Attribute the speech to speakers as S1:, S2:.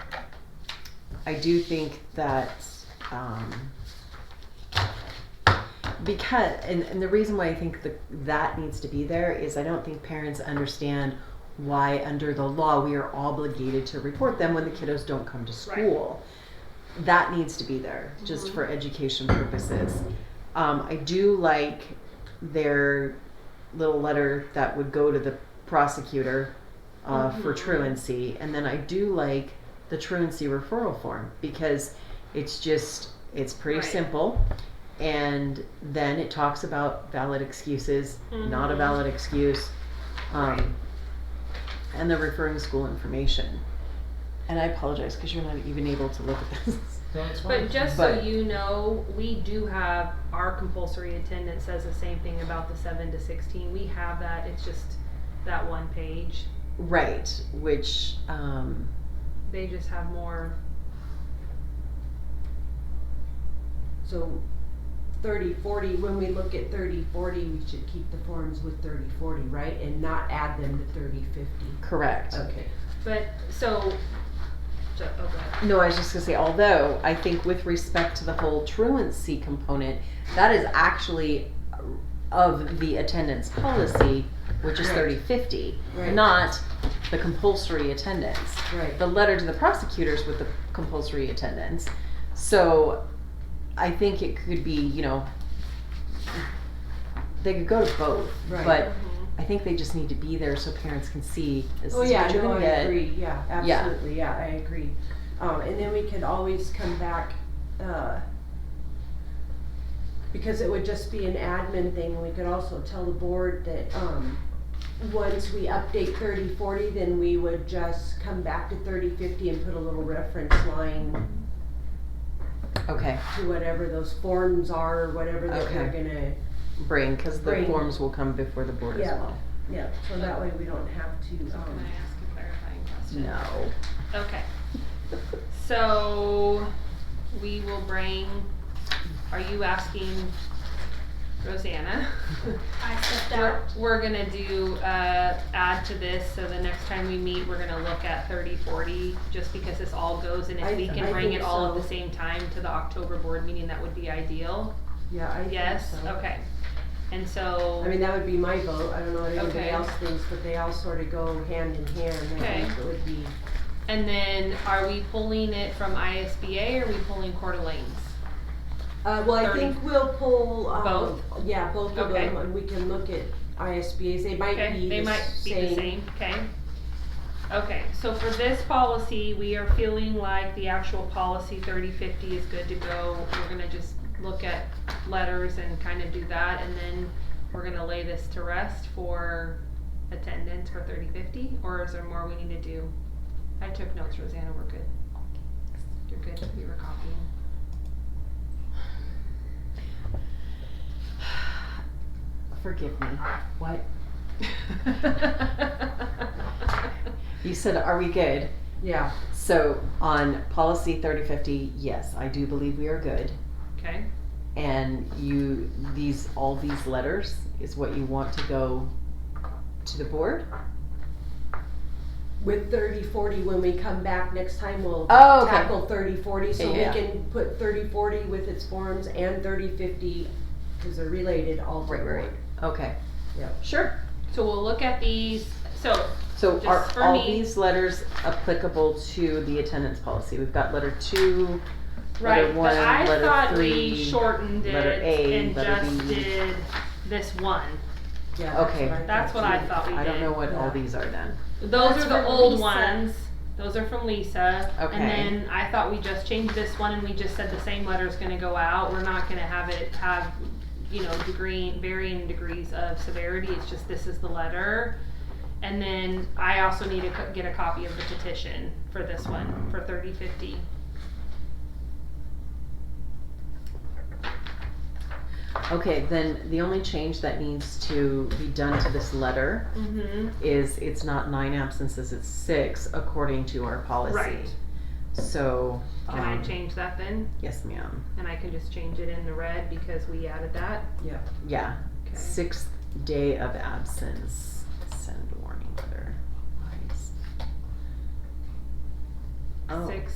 S1: I do think that um, because and, and the reason why I think the, that needs to be there is I don't think parents understand why under the law we are obligated to report them when the kiddos don't come to school. That needs to be there just for education purposes. Um, I do like their little letter that would go to the prosecutor uh, for truancy, and then I do like the truancy referral form because it's just it's pretty
S2: Right.
S1: simple, and then it talks about valid excuses, not a
S2: Mhm.
S1: valid excuse, um, and the referring school information. And I apologize because you're not even able to look at this.
S2: But just so
S1: But-
S2: you know, we do have our compulsory attendance says the same thing about the seven to sixteen. We have that. It's just that one page.
S1: Right, which um,
S2: They just have more.
S3: So thirty, forty, when we look at thirty, forty, we should keep the forms with thirty, forty, right? And not add them to thirty, fifty.
S1: correct.
S3: Okay.
S2: But so. so oh, go ahead.
S1: No, I was just gonna say, although I think with respect to the whole truancy component, that is actually of the attendance policy, which is
S3: Right.
S1: thirty fifty,
S3: Right.
S1: not the compulsory attendance.
S3: Right.
S1: The letter to the prosecutors with the compulsory attendance. So I think it could be, you know, they could go to both,
S3: Right.
S1: but
S2: Mhm.
S1: I think they just need to be there so parents can see this is
S3: Oh,
S1: what
S3: yeah,
S1: you're
S3: no,
S1: gonna
S3: I
S1: get.
S3: agree, yeah,
S1: Yeah.
S3: absolutely, yeah, I agree. Um, and then we could always come back, uh, because it would just be an admin thing, we could also tell the board that, um, once we update thirty, forty, then we would just come back to thirty, fifty and put a little reference line
S1: Okay,
S3: to whatever those forms are, or whatever that we're
S1: Okay.
S3: gonna,
S1: bring, cause the
S3: Bring.
S1: forms will come before the board as
S3: Yeah.
S1: well.
S3: yeah, so that way we don't have to,
S2: Can
S3: um,
S2: I ask a clarifying question?
S1: No.
S2: Okay. So we will bring. Are you asking Rosanna?
S4: I stepped
S2: We're,
S4: out.
S2: we're gonna do, uh, add to this, so the next time we meet, we're gonna look at thirty, forty, just because this all goes, and
S3: I-
S2: if we
S3: I
S2: can bring it
S3: think
S2: all at the
S3: so.
S2: same time to the October board meeting, that would be ideal.
S3: yeah, I think so.
S2: Yes, okay. And so.
S3: I mean, that would be my vote, I don't know what
S2: Okay.
S3: anybody else thinks, but they all sort of go hand in hand, I
S2: Okay.
S3: think it would be,
S2: And then, are we pulling it from ISBA, or are we pulling Coeur d'Alene's?
S3: uh, well, I
S2: Thirty.
S3: think we'll pull, um,
S2: Both?
S3: Yeah, both of
S2: Okay.
S3: them, and we can look at ISBA's, they might
S2: Okay,
S3: be
S2: they
S3: the
S2: might be the
S3: same.
S2: same, okay? Okay, so for this policy, we are feeling like the actual policy thirty fifty is good to go. We're gonna just look at letters and kind of do that, and then we're gonna lay this to rest for attendance for thirty fifty, or is there more we need to do? I took notes, Rosanna, we're good. You're good, we were copying.
S1: Forgive me. What? You said, are we good?
S3: Yeah,
S1: So on policy 3050, yes, I do believe we are good.
S2: Okay,
S1: And you, these, all these letters is what you want to go to the board?
S3: with thirty, forty, when we come back next time, we'll
S1: Oh, okay.
S3: tackle thirty, forty, so we
S1: Yeah.
S3: can put thirty, forty with its forms and thirty, fifty, cause they're related all to
S1: Right, right,
S3: one.
S1: Okay.
S3: Yeah.
S1: Sure.
S2: so we'll look at these, so
S1: So
S2: Just
S1: are
S2: for
S1: all
S2: me.
S1: these letters applicable to the attendance policy? We've got letter two, letter
S2: Right,
S1: one,
S2: but I
S1: letter
S2: thought
S1: three,
S2: we shortened it
S1: letter A,
S2: and
S1: letter
S2: just
S1: B.
S2: did this one.
S3: Yeah,
S1: Okay.
S2: That's what I thought we
S1: I don't know
S2: did.
S1: what all
S3: Yeah.
S1: these are then.
S2: Those
S4: That's
S2: are the
S4: from
S2: old
S4: Lisa.
S2: ones. Those are from Lisa.
S1: Okay.
S2: And then I thought we just changed this one and we just said the same letter's gonna go out. We're not gonna have it have, you know, degree, varying degrees of severity. It's just this is the letter. And then I also need to co- get a copy of the petition for this one, for thirty fifty.
S1: Okay, then the only change that needs to be done to this letter
S2: Mm-hmm.
S1: is it's not nine absences, it's six according to our policy.
S2: Right.
S1: So.
S2: Can I
S1: um,
S2: change that then?
S1: Yes, ma'am.
S2: And I can just change it in the red because we added that.
S1: Yeah,
S2: Okay.
S1: sixth day of absence, send warning letter. Nice. Oh.
S2: Six